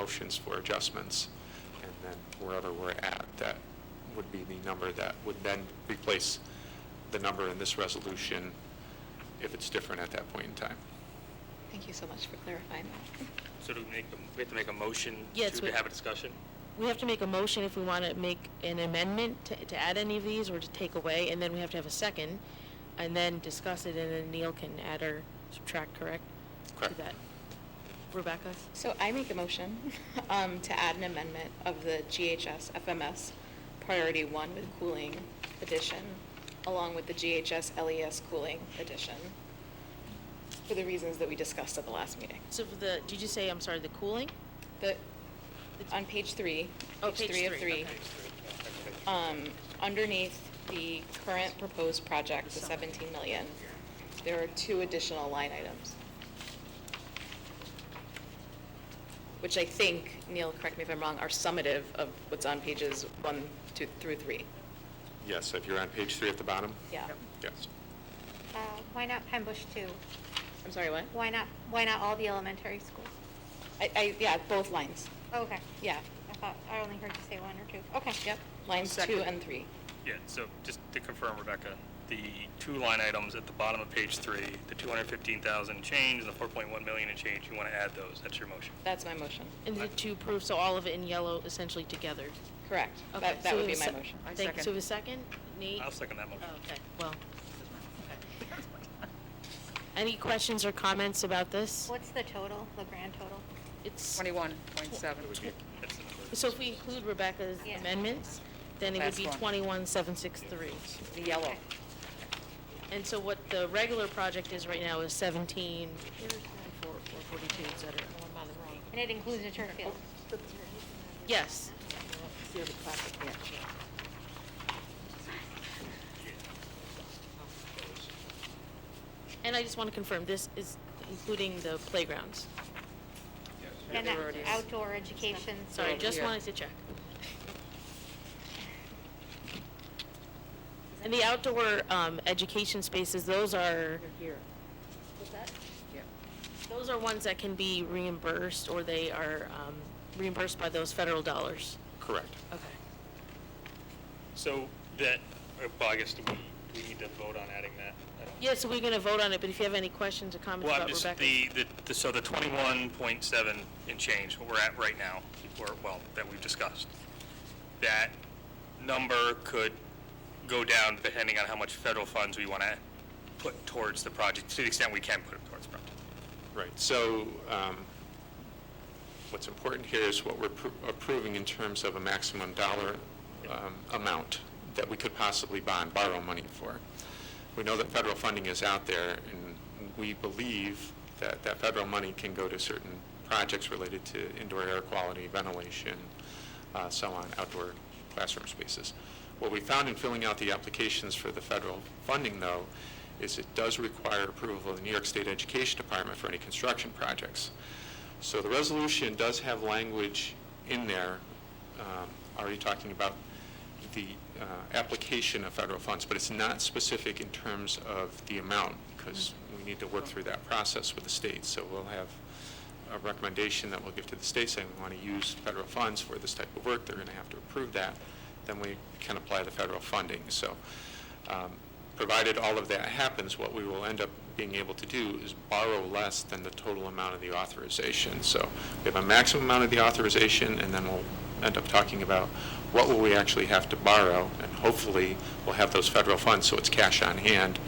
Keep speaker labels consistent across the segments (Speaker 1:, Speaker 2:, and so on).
Speaker 1: motions for adjustments, and then wherever we're at, that would be the number that would then replace the number in this resolution if it's different at that point in time.
Speaker 2: Thank you so much for clarifying that.
Speaker 3: So do we make, a- we have to make a motion
Speaker 4: Yes,
Speaker 3: to
Speaker 4: we-
Speaker 3: have a discussion?
Speaker 4: We have to make a motion if we want to make an amendment to, to add any of these or to take away, and then we have to have a second, and then discuss it, and then Neil can add or subtract, correct? To
Speaker 1: Correct.
Speaker 4: that. Rebecca?
Speaker 2: So I make a motion um, to add an amendment of the GHS FMS Priority 1 with cooling addition, along with the GHS LES E cooling addition, for the reasons that we discussed at the last meeting.
Speaker 4: So for the, did you say, I'm sorry, the cooling?
Speaker 2: The, on page three,
Speaker 4: Oh,
Speaker 2: page
Speaker 4: page
Speaker 2: three of
Speaker 4: three,
Speaker 2: three, um, underneath the current proposed project, the 17 million, there are two additional line items. Which I think, Neil, correct me if I'm wrong, are summative of what's on pages one, two, through three.
Speaker 1: Yes, if you're on page three at the bottom?
Speaker 2: Yeah.
Speaker 1: Yes.
Speaker 5: Uh, Why not Pine Bush too?
Speaker 2: I'm sorry, what?
Speaker 5: Why not, why not all the elementary schools?
Speaker 2: I, I, yeah, both lines.
Speaker 5: Okay,
Speaker 2: Yeah.
Speaker 5: I thought, I only heard you say one or two. Okay.
Speaker 2: Yep, lines two
Speaker 3: Second.
Speaker 2: and three.
Speaker 3: Yeah, so just to confirm, Rebecca, the two line items at the bottom of page three, the 215,000 change and the 4.1 million and change, you want to add those, that's your motion.
Speaker 2: That's my motion.
Speaker 4: And the two proof, so all of it in yellow essentially together.
Speaker 2: Correct.
Speaker 4: Okay,
Speaker 2: That,
Speaker 4: so
Speaker 2: that would
Speaker 4: we
Speaker 2: be
Speaker 4: have
Speaker 2: my
Speaker 4: a se-
Speaker 2: motion.
Speaker 6: I
Speaker 4: Thank you. So
Speaker 6: second.
Speaker 4: the second, Nate?
Speaker 3: I'll second that
Speaker 4: Oh,
Speaker 3: motion.
Speaker 4: Okay, well. Any questions or comments about this?
Speaker 5: What's the total, the grand total?
Speaker 4: It's,
Speaker 6: Twenty-one point seven.
Speaker 3: That's the number.
Speaker 4: so if we include Rebecca's
Speaker 5: Yeah.
Speaker 4: amendments, then it would
Speaker 6: Last
Speaker 4: be
Speaker 6: one.
Speaker 4: twenty-one, seven, six, three.
Speaker 6: The yellow.
Speaker 5: Okay.
Speaker 4: And so what the regular project is right now is seventeen, four, four forty-two, et cetera. Oh, I'm on the wrong.
Speaker 5: And it includes the turf field?
Speaker 4: Yes, and I just want to confirm, this is including the playgrounds.
Speaker 5: And
Speaker 6: there
Speaker 5: that
Speaker 6: already is.
Speaker 5: outdoor education?
Speaker 4: Sorry,
Speaker 6: Yeah.
Speaker 4: just wanted to check. And the outdoor um, education spaces, those are,
Speaker 6: Here. What's
Speaker 4: those are ones that can be reimbursed, or they are um, reimbursed by those federal dollars.
Speaker 1: Correct.
Speaker 4: Okay.
Speaker 3: So that, uh, well, I guess do we, do we need to vote on adding that? I don't-
Speaker 4: Yeah, so we're going to vote on it, but if you have any questions or comments
Speaker 3: Well,
Speaker 4: about
Speaker 3: I'm just,
Speaker 4: Rebecca.
Speaker 3: the, the- the, so the 21.7 and change, what we're at right now, or, well, that we've discussed, that number could go down depending on how much federal funds we want to put towards the project, to the extent we can put it towards the project.
Speaker 1: Right, so um, what's important here is what we're appro- approving in terms of a maximum dollar um, amount that we could possibly bond, borrow money for. We know that federal funding is out there, and we believe that that federal money can go to certain projects related to indoor air quality, ventilation, uh, so on, outdoor classroom spaces. What we found in filling out the applications for the federal funding, though, is it does require approval of the New York State Education Department for any construction projects. So the resolution does have language in there, um, already talking about the uh, application of federal funds, but it's not specific in terms of the amount, because we need to work through that process with the state. So we'll have a recommendation that we'll give to the state saying we want to use federal funds for this type of work. They're going to have to approve that. Then we can apply the federal funding. So um, provided all of that happens, what we will end up being able to do is borrow less than the total amount of the authorization. So we have a maximum amount of the authorization, and then we'll end up talking about what will we actually have to borrow, and hopefully, we'll have those federal funds, so it's cash on hand.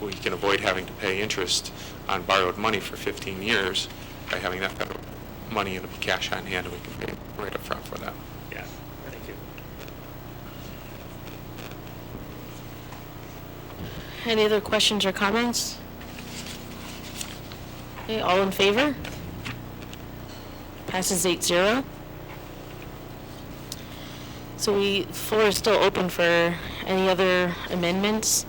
Speaker 1: We can avoid having to pay interest on borrowed money for 15 years by having that federal money, it'll be cash on hand, and we can pay right up front for that.
Speaker 3: Yeah, thank you.
Speaker 4: Any other questions or comments? Okay, all in favor? Passes eight zero. So we, floor is still open for any other amendments?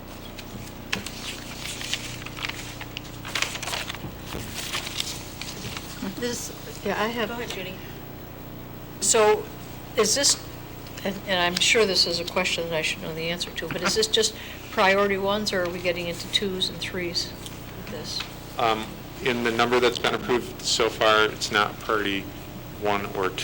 Speaker 7: This, yeah, I have. So is this, and and I'm sure this is a question that I should know the answer to, but is this just priority ones, or are we getting into twos and threes with this?
Speaker 1: Um, In the number that's been approved so far, it's not priority one or two.